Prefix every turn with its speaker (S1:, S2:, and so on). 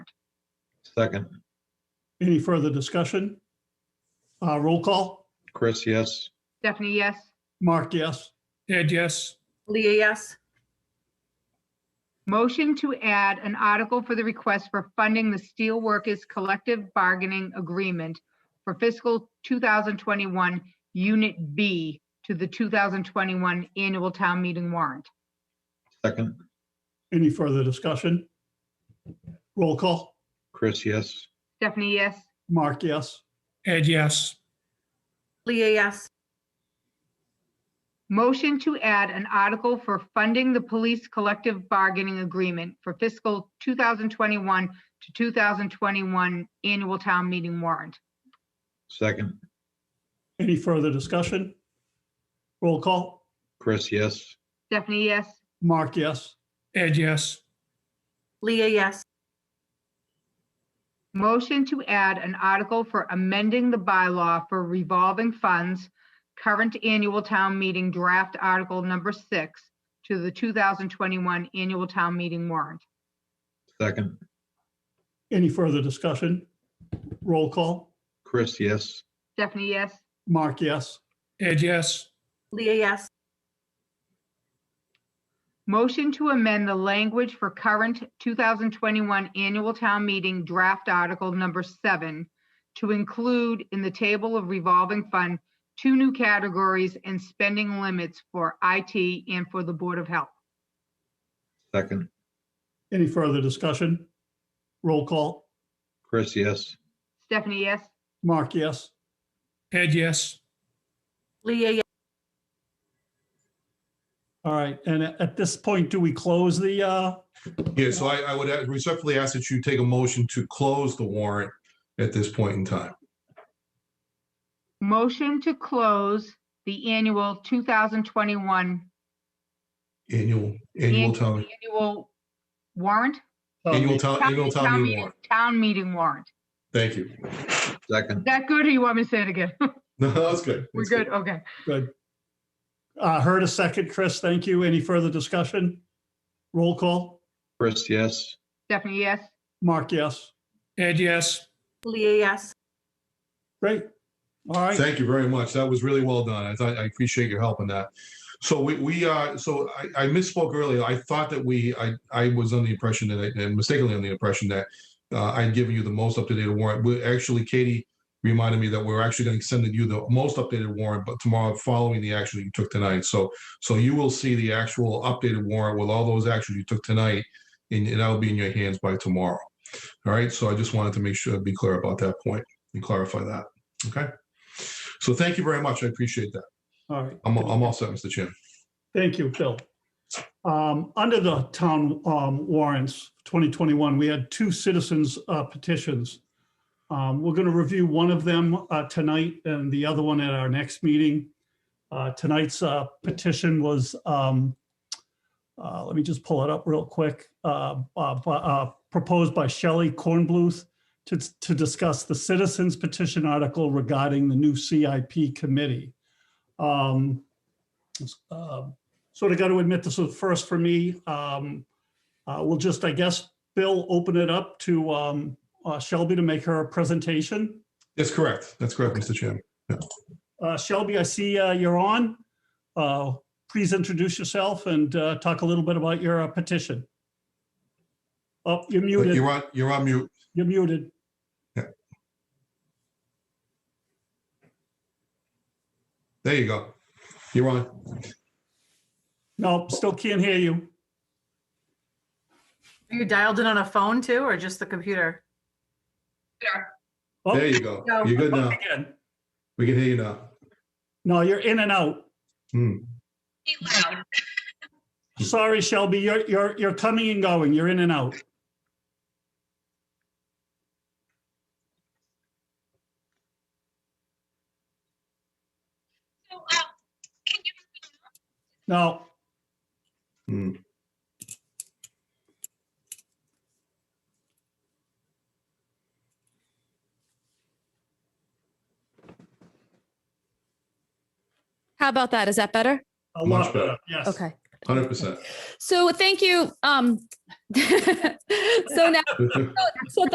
S1: Second,
S2: Any further discussion? Uh, Roll call.
S1: Chris, yes.
S3: Stephanie, yes.
S2: Mark, yes.
S4: Ed, yes.
S5: Leah, yes.
S3: Motion to add an article for the request for funding the Steelworkers Collective Bargaining Agreement for fiscal 2021 Unit B to the 2021 Annual Town Meeting warrant.
S1: Second,
S2: Any further discussion? Roll call.
S1: Chris, yes.
S3: Stephanie, yes.
S2: Mark, yes.
S4: Ed, yes.
S5: Leah, yes.
S3: Motion to add an article for funding the police collective bargaining agreement for fiscal 2021 to 2021 Annual Town Meeting warrant.
S1: Second,
S2: Any further discussion? Roll call.
S1: Chris, yes.
S3: Stephanie, yes.
S2: Mark, yes.
S4: Ed, yes.
S5: Leah, yes.
S3: Motion to add an article for amending the bylaw for revolving funds, current annual town meeting draft article number six to the 2021 annual town meeting warrant.
S1: Second,
S2: Any further discussion? Roll call.
S1: Chris, yes.
S3: Stephanie, yes.
S2: Mark, yes.
S4: Ed, yes.
S5: Leah, yes.
S3: Motion to amend the language for current 2021 annual town meeting draft article number seven to include in the table of revolving fund, two new categories and spending limits for IT and for the Board of Health.
S1: Second,
S2: Any further discussion? Roll call.
S1: Chris, yes.
S3: Stephanie, yes.
S2: Mark, yes.
S4: Ed, yes.
S5: Leah, yes.
S2: All right. And at at this point, do we close the, uh,
S6: Yeah, so I, I would respectfully ask that you take a motion to close the warrant at this point in time.
S3: Motion to close the annual 2021
S6: Annual, annual town,
S3: annual warrant?
S6: annual town, Uh, annual town meeting warrant.
S3: Town meeting warrant.
S6: Thank you.
S3: Is
S1: Second,
S3: that good or you want me to say it again?
S6: No, that's good.
S3: We're
S6: That's
S3: good, okay.
S2: Good. Uh, heard a second, Chris. Thank you. Any further discussion? Roll call.
S1: Chris, yes.
S3: Stephanie, yes.
S2: Mark, yes.
S4: Ed, yes.
S5: Leah, yes.
S2: Great. All right.
S6: Thank you very much. That was really well done. I thought, I appreciate your help on that. So we, we, uh, so I, I misspoke earlier. I thought that we, I, I was under the impression that, I- and mistakenly under the impression that uh, I'd given you the most up-to-date warrant. We, actually, Katie reminded me that we're actually going to send you the most updated warrant, but tomorrow, following the action that you took tonight. So, so you will see the actual updated warrant with all those actions you took tonight, and and that'll be in your hands by tomorrow. All right, so I just wanted to make sure, be clear about that point and clarify that, okay? So thank you very much. I appreciate that.
S2: All right.
S6: I'm, I'm all set, Mr. Chairman.
S2: Thank you, Phil. Um, under the town um, warrants 2021, we had two citizens uh, petitions. Um, we're going to review one of them uh, tonight and the other one at our next meeting. Uh, tonight's uh, petition was, um, uh, let me just pull it up real quick, uh, uh, bu- uh, proposed by Shelley Kornbluth to, to discuss the citizens petition article regarding the new CIP committee. Um, uh, sort of got to admit this was first for me. Um, uh, We'll just, I guess, Bill, open it up to um, uh, Shelby to make her presentation.
S6: That's correct. That's correct, Mr. Chairman.
S2: Uh, Shelby, I see uh, you're on. Uh, Please introduce yourself and uh, talk a little bit about your uh, petition. Oh, you're muted.
S6: You're on, you're on mute.
S2: You're muted.
S6: There you go. You're on.
S2: No, still can't hear you.
S5: Are you dialed in on a phone too, or just the computer?
S2: Oh,
S6: There you go.
S5: No.
S6: You're good now.
S2: again.
S6: We can hear you now.
S2: No, you're in and out.
S6: Hmm.
S2: Sorry, Shelby, you're, you're, you're coming and going. You're in and out.
S7: So, um, can you,
S2: No,
S6: Hmm.
S8: How about that? Is that better?
S2: a
S6: Much
S2: lot better.
S6: better.
S2: Yes.
S8: Okay.
S6: 100%.
S8: So thank you. Um, so now, so